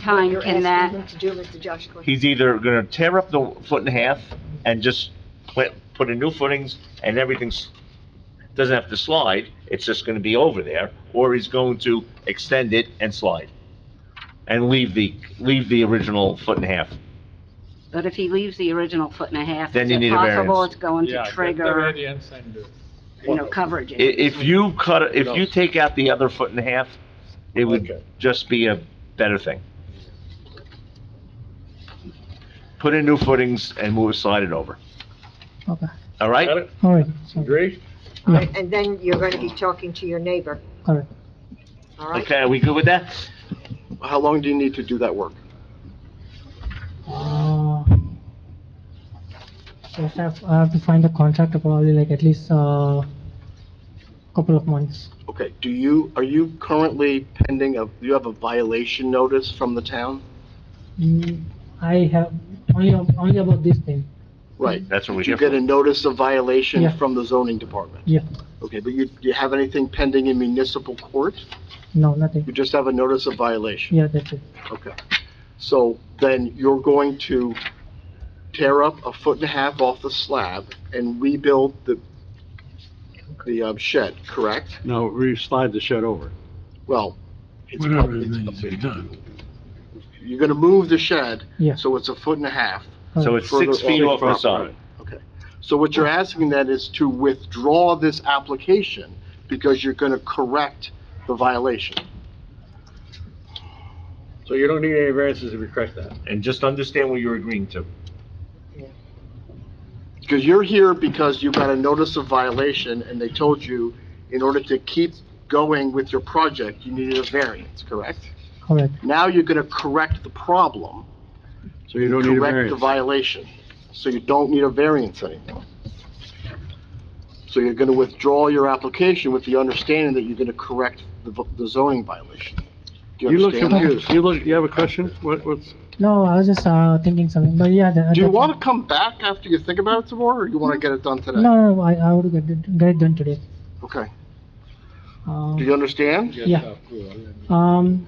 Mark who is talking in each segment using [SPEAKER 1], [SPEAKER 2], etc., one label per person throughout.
[SPEAKER 1] time
[SPEAKER 2] You're
[SPEAKER 1] can
[SPEAKER 2] asking
[SPEAKER 1] that,
[SPEAKER 2] him to do, Mr. Josh Gordon.
[SPEAKER 3] He's either gonna tear up the foot and a half and just put, put in new footings and everything's, doesn't have to slide, it's just gonna be over there, or he's going to extend it and slide. And leave the, leave the original foot and a half.
[SPEAKER 1] but if he leaves the original foot and a half,
[SPEAKER 3] Then
[SPEAKER 1] is
[SPEAKER 3] you
[SPEAKER 1] it
[SPEAKER 3] need a
[SPEAKER 1] possible
[SPEAKER 3] variance.
[SPEAKER 1] it's going
[SPEAKER 4] Yeah,
[SPEAKER 1] to
[SPEAKER 4] get the
[SPEAKER 1] trigger,
[SPEAKER 4] variance and, uh,
[SPEAKER 1] you know, coverage?
[SPEAKER 3] I, if you cut, if you
[SPEAKER 4] knows?
[SPEAKER 3] take out the other foot and a half, it
[SPEAKER 4] Okay.
[SPEAKER 3] would just be a better thing. Put in new footings and move, slide it over,
[SPEAKER 5] Okay,
[SPEAKER 3] all right?
[SPEAKER 4] Got it?
[SPEAKER 5] all right, so,
[SPEAKER 4] Agree?
[SPEAKER 5] yeah,
[SPEAKER 2] And then you're going to be talking to your neighbor,
[SPEAKER 5] all right.
[SPEAKER 2] all right?
[SPEAKER 3] Okay, are we good with that?
[SPEAKER 6] How long do you need to do that work?
[SPEAKER 5] Uh, First, I have, I have to find a contractor probably like at least, uh, couple of months.
[SPEAKER 6] Okay, do you, are you currently pending a, you have a violation notice from the town?
[SPEAKER 5] Mm-hmm. Mm, I have, only, only about this thing,
[SPEAKER 6] Right.
[SPEAKER 3] That's what we
[SPEAKER 6] Did
[SPEAKER 3] here
[SPEAKER 6] you get
[SPEAKER 3] for.
[SPEAKER 6] a notice of violation
[SPEAKER 5] Yeah.
[SPEAKER 6] from the zoning department?
[SPEAKER 5] Yeah.
[SPEAKER 6] Okay, but you, do you have anything pending in municipal court?
[SPEAKER 5] no, nothing,
[SPEAKER 6] You just have a notice of violation?
[SPEAKER 5] yeah, that's it,
[SPEAKER 6] Okay. So then you're going to tear up a foot and a half off the slab and rebuild the, the um, shed, correct?
[SPEAKER 7] No, re-slide the shed over.
[SPEAKER 6] Well, it's
[SPEAKER 7] Whatever
[SPEAKER 6] probably,
[SPEAKER 7] it needs to be done.
[SPEAKER 6] you're gonna move the shed,
[SPEAKER 5] yeah.
[SPEAKER 6] so it's a foot and a half.
[SPEAKER 3] So
[SPEAKER 5] Alright.
[SPEAKER 3] it's six feet off the
[SPEAKER 7] Property.
[SPEAKER 3] side.
[SPEAKER 6] So what you're asking then is to withdraw this application because you're gonna correct the violation.
[SPEAKER 4] So you don't need any variances if you correct that.
[SPEAKER 3] And just understand what you're agreeing to.
[SPEAKER 6] Because you're here because you got a notice of violation and they told you in order to keep going with your project, you needed a variance, correct?
[SPEAKER 5] Correct,
[SPEAKER 6] Now you're gonna correct the problem,
[SPEAKER 7] So you don't need a
[SPEAKER 6] correct the
[SPEAKER 7] variance.
[SPEAKER 6] violation. So you don't need a variance anymore. So you're gonna withdraw your application with the understanding that you're gonna correct the v- the zoning violation. Do
[SPEAKER 7] You look
[SPEAKER 6] understand that?
[SPEAKER 7] confused. You look, you have a question? What, what's,
[SPEAKER 5] no, I was just, uh, thinking something, but yeah. tha-
[SPEAKER 6] Do you
[SPEAKER 5] that's it.
[SPEAKER 6] want to come back after you think about it some more, or you want to get it done today?
[SPEAKER 5] No, no, I, I would get it, get it done today,
[SPEAKER 6] Okay.
[SPEAKER 5] uh,
[SPEAKER 6] Do you understand?
[SPEAKER 4] Get
[SPEAKER 5] Yeah.
[SPEAKER 4] approval and
[SPEAKER 5] um,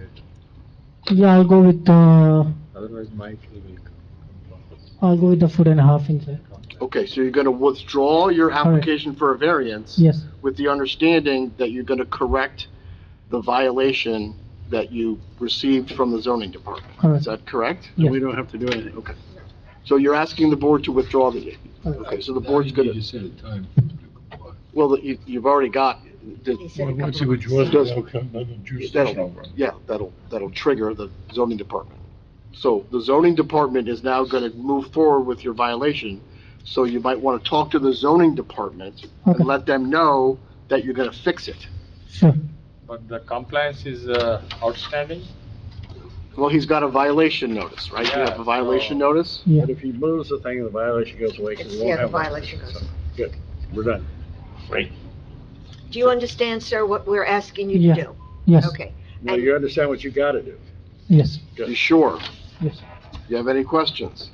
[SPEAKER 5] yeah, I'll go with, uh,
[SPEAKER 4] Otherwise, Mike will come.
[SPEAKER 5] I'll go with the foot and a half inch, uh,
[SPEAKER 6] Okay, so you're going to withdraw your application for a variance
[SPEAKER 5] yes,
[SPEAKER 6] with the understanding that you're going to correct the violation that you received from the zoning department. Is
[SPEAKER 5] correct,
[SPEAKER 6] that correct?
[SPEAKER 5] Yeah.
[SPEAKER 7] we don't have to do anything. Okay.
[SPEAKER 6] So you're asking the board to withdraw the,
[SPEAKER 5] correct.
[SPEAKER 6] okay, so the board's going to,
[SPEAKER 8] set a time.
[SPEAKER 6] well, that you, you've already got,
[SPEAKER 2] He
[SPEAKER 6] the-
[SPEAKER 2] said a couple
[SPEAKER 8] Once
[SPEAKER 2] of
[SPEAKER 8] you withdraw
[SPEAKER 6] Does-
[SPEAKER 8] the outcome, then the juice is
[SPEAKER 6] That'll-
[SPEAKER 8] over.
[SPEAKER 6] yeah, that'll, that'll trigger the zoning department. So the zoning department is now going to move forward with your violation, so you might want to talk to the zoning department
[SPEAKER 5] Okay.
[SPEAKER 6] and let them know that you're going to fix it.
[SPEAKER 5] sure,
[SPEAKER 4] But the compliance is uh, outstanding?
[SPEAKER 6] Well, he's got a violation notice, right? You have
[SPEAKER 4] Yeah,
[SPEAKER 6] a violation
[SPEAKER 4] so-
[SPEAKER 6] notice?
[SPEAKER 5] yeah.
[SPEAKER 4] But if he moves the thing, the violation goes away, 'cause we won't
[SPEAKER 2] Yeah, the
[SPEAKER 4] have one.
[SPEAKER 2] violation goes. away.
[SPEAKER 4] Good, we're done.
[SPEAKER 2] Do you understand, sir, what we're asking you
[SPEAKER 5] Yeah.
[SPEAKER 2] to do?
[SPEAKER 5] Yes,
[SPEAKER 2] Okay.
[SPEAKER 4] Now,
[SPEAKER 2] And-
[SPEAKER 4] you understand what you gotta do.
[SPEAKER 5] yes,
[SPEAKER 6] You sure?
[SPEAKER 5] yes,
[SPEAKER 6] You have any questions?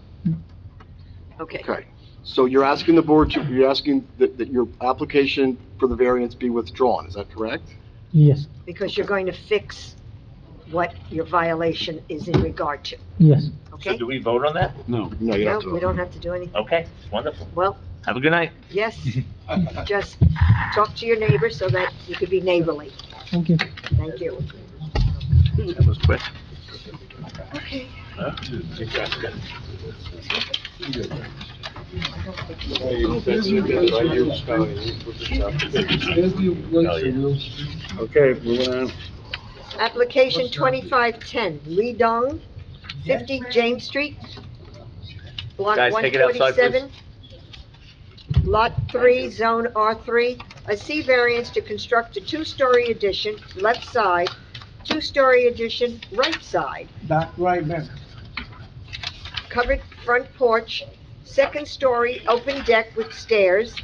[SPEAKER 2] Okay.
[SPEAKER 6] Okay. So you're asking the board to, you're asking that, that your application for the variance be withdrawn, is that correct?
[SPEAKER 5] yes,
[SPEAKER 2] Because you're going to fix what your violation is in regard to,
[SPEAKER 5] yes.
[SPEAKER 3] So
[SPEAKER 2] okay?
[SPEAKER 3] do we vote on that?
[SPEAKER 7] No.
[SPEAKER 6] No,
[SPEAKER 2] No, we
[SPEAKER 6] you don't have to.
[SPEAKER 2] don't have to do anything.
[SPEAKER 3] Okay, wonderful.
[SPEAKER 2] Well,
[SPEAKER 3] Have a good night.
[SPEAKER 2] yes, just talk to your neighbor so that you could be neighborly.
[SPEAKER 5] Thank you.
[SPEAKER 2] Thank you.
[SPEAKER 3] That was quick.
[SPEAKER 4] Okay, moving on.
[SPEAKER 2] Application twenty-five ten, Lee Dong, fifty James Street, block
[SPEAKER 3] Guys,
[SPEAKER 2] one
[SPEAKER 3] take it outside,
[SPEAKER 2] forty-seven. Lot three, zone R three, a C variance to construct a two-story addition, left side, two-story addition, right side,
[SPEAKER 9] Back right then.
[SPEAKER 2] covered front porch, second story, open deck with stairs,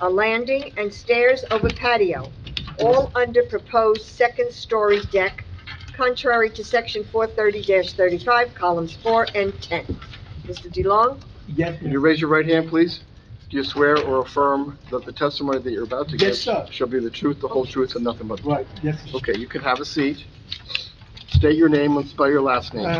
[SPEAKER 2] a landing and stairs over patio, all under proposed second story deck, contrary to section four thirty thirty-five, columns four and ten. Mr. DeLong,
[SPEAKER 9] Yes,
[SPEAKER 6] Can you raise your right hand, please? Do you swear or affirm that the testimony that you're about to give
[SPEAKER 9] Yes, sir.
[SPEAKER 6] shall be the truth, the whole truth, and nothing but the truth?
[SPEAKER 9] right, yes.
[SPEAKER 6] Okay, you can have a seat. State your name and spell your last name.